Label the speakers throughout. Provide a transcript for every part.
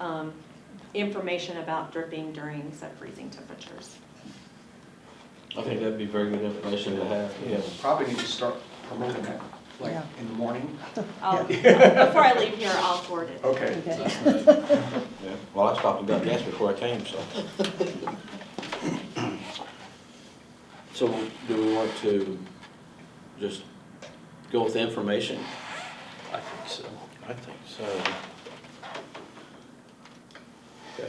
Speaker 1: um, information about dripping during sub-freezing temperatures.
Speaker 2: I think that'd be very good information to have, yeah.
Speaker 3: Probably need to start promoting that, like,
Speaker 4: Yeah.
Speaker 3: in the morning.
Speaker 1: I'll- Before I leave here, I'll forward it.
Speaker 3: Okay.
Speaker 4: Okay.
Speaker 2: Yeah. Well, I stopped and got gas before I came, so. So do we want to just go with information?
Speaker 5: I think so.
Speaker 2: I think so. Okay.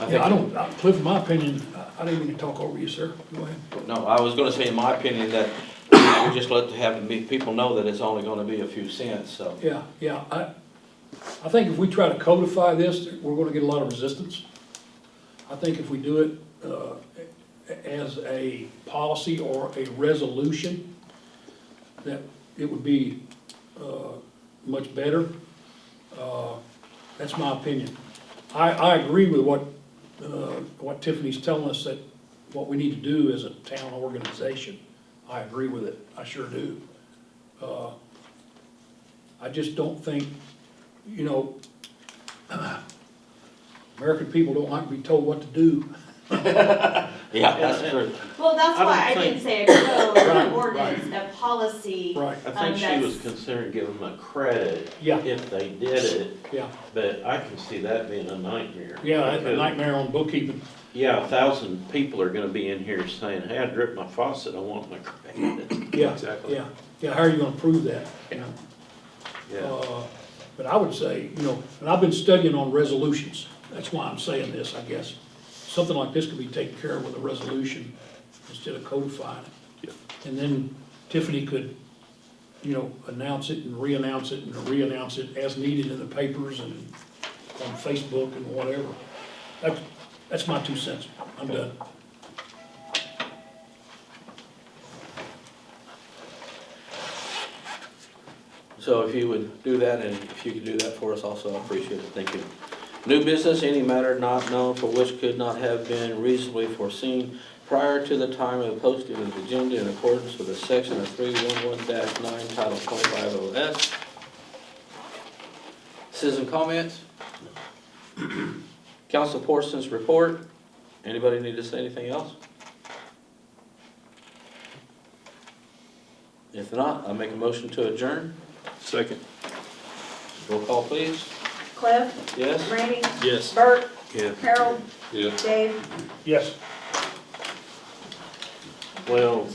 Speaker 6: Yeah, I
Speaker 2: think-
Speaker 6: don't, uh, Cliff, in my opinion, I- I didn't mean to talk over you, sir. Go ahead.
Speaker 2: No, I was gonna say, in my opinion, that we just let to have the people know that it's only gonna be a few cents, so.
Speaker 6: Yeah, yeah, I, I think if we try to codify this, we're gonna get a lot of resistance. I think if we do it, uh, a- as a policy or a resolution, that it would be, uh, much better. Uh, That's my opinion. I, I agree with what, uh, what Tiffany's telling us, that what we need to do as a town organization. I agree with it, I sure do. I just don't think, you know, American people don't like to be told what to do.
Speaker 2: Yeah, that's true.
Speaker 1: Well, that's
Speaker 5: I
Speaker 1: why I
Speaker 5: don't
Speaker 1: didn't say a code, an
Speaker 6: Right,
Speaker 1: ordinance, a policy.
Speaker 6: Right.
Speaker 5: I
Speaker 1: Um,
Speaker 5: think she
Speaker 1: that's-
Speaker 5: was considering giving them a credit
Speaker 6: Yeah.
Speaker 5: if they did it,
Speaker 6: Yeah,
Speaker 5: but I can see that being a nightmare.
Speaker 6: yeah, that's a
Speaker 5: Because,
Speaker 6: nightmare on bookkeeping.
Speaker 5: Yeah, a thousand people are gonna be in here saying, hey, I dripped my faucet, I want my credit.
Speaker 6: Yeah,
Speaker 5: Exactly.
Speaker 6: yeah, yeah, how are you gonna prove that, you know?
Speaker 5: Yeah,
Speaker 6: Uh, But I would say, you know, and I've been studying on resolutions, that's why I'm saying this, I guess. Something like this could be taken care of with a resolution instead of codifying it. And then Tiffany could, you know, announce it and re-announce it and re-announce it as needed in the papers and on Facebook and whatever. That's, that's my two cents, I'm done.
Speaker 2: So if you would do that, and if you could do that for us also, I appreciate it, thank you. New business, any matter not known for which could not have been reasonably foreseen prior to the time of posting of the agenda in accordance with the section of three one one nine, title point five oh S. Citizen comments? Council Porson's report, anybody need to say anything else? If not, I make a motion to adjourn,
Speaker 5: second,
Speaker 2: roll call please,
Speaker 7: Cliff,
Speaker 2: yes?
Speaker 7: Randy,
Speaker 5: yes.
Speaker 7: Bert,
Speaker 5: Yeah.
Speaker 7: Harold,
Speaker 5: Yeah.
Speaker 7: Dave.
Speaker 6: Yes.
Speaker 5: Well,